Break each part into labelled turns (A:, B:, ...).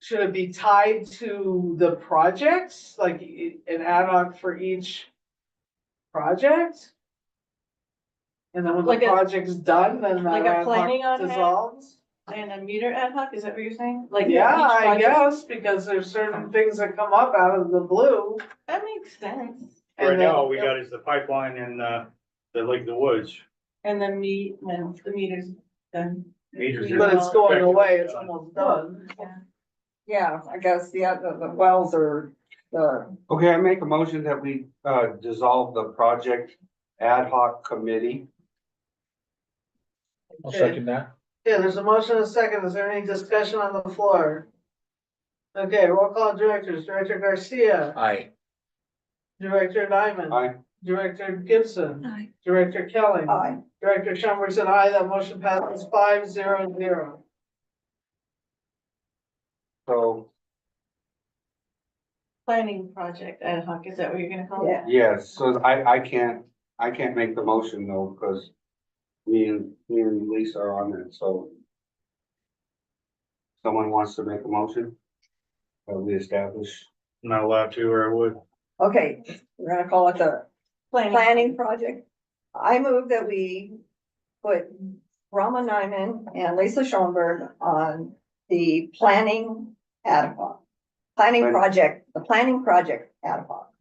A: should it be tied to the projects, like i- an ad hoc for each project? And then when
B: Like
A: the
B: a-
A: project's done, then
B: like
A: that
B: a
A: ad
B: planning
A: hoc
B: on hand?
A: dissolves?
B: And a meter ad hoc, is that what you're saying? Like
A: Yeah,
B: each
A: I
B: project-
A: guess, because there's certain things that come up out of the blue.
B: That makes sense.
A: and
C: Right
A: then-
C: now, all we got is the pipeline and, uh, the Lake of the Woods.
B: And then meet, when the meter's done.
C: Meters
B: We
C: are-
A: But it's going
C: Effectively
A: away, it's
C: done.
A: almost done.
B: Yeah.
D: Yeah, I guess the, other- the wells are, the,
E: Okay, I make a motion that we uh dissolve the project ad hoc committee.
F: I'll second that.
A: Yeah, there's a motion and a second. Is there any discussion on the floor? Okay, roll call directors. Director Garcia,
F: Aye.
A: Director Nyman.
E: Aye.
A: Director Gibson,
B: Aye.
A: Director Kelly,
D: I,
A: Director Chambers and I, that motion passes five zero zero.
E: So,
B: Planning project ad hoc, is that what you're gonna call it?
D: yeah,
E: yes, so I I can't, I can't make the motion though, because me and, me and Lisa are on it, so. Someone wants to make a motion? That we establish,
C: Not allowed to, or I would.
D: okay, we're gonna call it the planning project. I move that we put Rama Nyman and Lisa Schoenberg on the planning ad hoc. Planning
E: Planning.
D: project, the planning project ad hoc.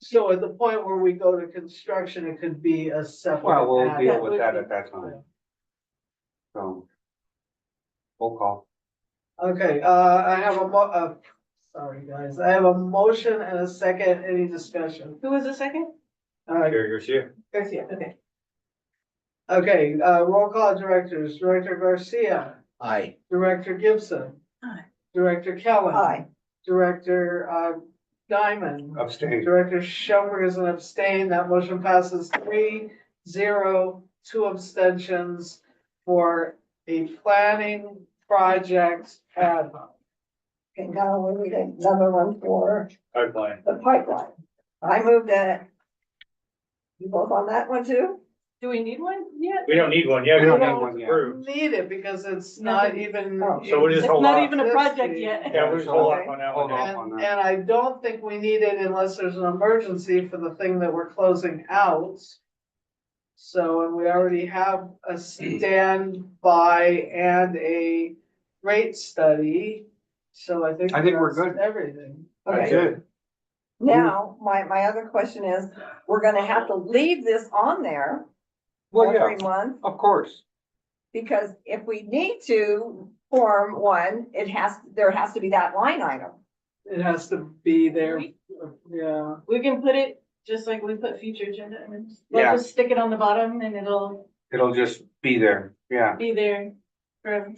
A: So at the point where we go to construction, it could be a separate.
E: well, we'll
A: act.
E: deal with that at that time. So. Roll call.
A: Okay, uh, I have a mo- uh, sorry, guys, I have a motion and a second, any discussion?
B: Who was the second?
A: Uh,
C: Gary Garcia,
A: Garcia.
B: Okay.
A: Okay, uh, roll call directors, Director Garcia,
F: Aye.
A: Director Gibson.
B: Aye.
A: Director Kelly.
D: Aye,
A: Director, uh, Diamond.
E: Abstain.
A: Director Schoenberg is an abstain. That motion passes three, zero, two abstentions for a planning project ad hoc.
D: okay, now we need another one for
C: pipeline.
D: the pipeline. I move that. You both on that one too?
B: Do we need one yet?
C: We don't need one yet.
E: We don't
C: because
E: have one
C: it's
E: yet.
C: approved.
A: Need it because it's not even.
D: Oh.
C: So we
B: It's
C: just hold
B: not
C: off.
B: even a project
C: Yeah,
B: yet.
C: we'll just hold off on that
E: Hold
C: one.
E: off
A: And,
E: on
A: and
E: that.
A: I don't think we need it unless there's an emergency for the thing that we're closing out. So, and we already have a standby and a rate study, so I think.
E: I think we're
A: that's
E: good.
A: Everything.
E: That's
D: Okay,
E: it.
D: now, my, my other question is, we're gonna have to leave this on there
E: Well, yeah,
D: every month,
E: of course.
D: because if we need to form one, it has, there has to be that line item.
A: It has to be there, yeah.
B: We can put it, just like we put future agenda, and then just-
E: Yeah.
B: we'll just stick it on the bottom and it'll
E: It'll just be there. Yeah,
B: be there for,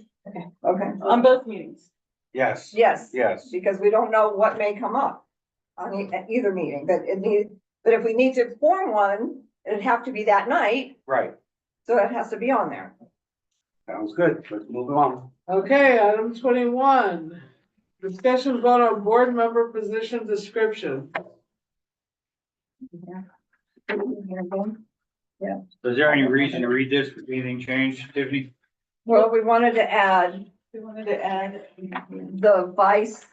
D: Okay,
B: on both meetings.
E: yes,
D: yes,
E: yes.
D: because we don't know what may come up on e- at either meeting, but it need, but if we need to form one, it'd have to be that night,
E: Right,
D: so it has to be on there.
E: sounds good, let's move along.
A: Okay, item twenty-one, discussion vote on board member position description.
E: Uh.
C: Is there any reason to read this? Did anything change, Tiffany?
D: Well, we wanted to add
B: We wanted to add,
D: the vice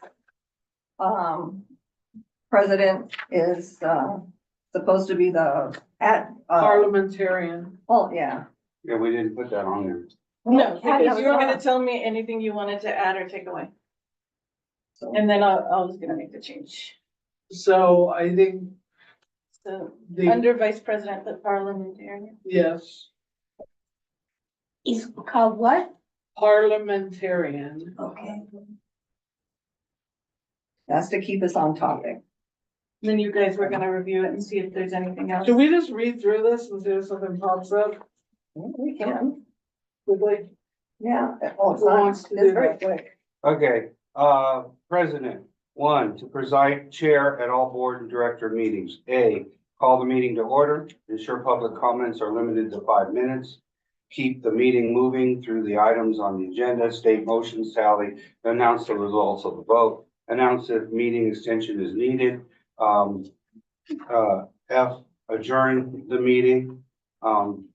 D: um, president is uh, supposed to be the at, uh,
A: Parliamentarian.
D: well, yeah.
E: Yeah, we didn't put that on there.
B: no,
D: Yeah,
B: because you were gonna
D: it's
B: tell me anything you wanted to add or take away.
D: So-
B: And then I, I was gonna make the change.
A: So I think
B: So,
A: the,
B: under vice president, but parliamentarian.
A: yes.
G: is called what? Oh.
A: parliamentarian.
G: Okay.
D: That's to keep us on topic.
B: And Then you guys were gonna review it and see if there's anything else.
A: Should we just read through this and see if something pops up?
D: We can,
A: Like,
D: yeah. Oh, it's
A: Who
D: not-
A: wants
D: it's
A: to do
D: very
A: that?
D: quick.
E: Okay, uh, president, one, to preside chair at all board and director meetings. A, call the meeting to order, ensure public comments are limited to five minutes. Keep the meeting moving through the items on the agenda, state motions tally, announce the results of the vote, announce if meeting extension is needed. Um, uh, F, adjourn the meeting. Um,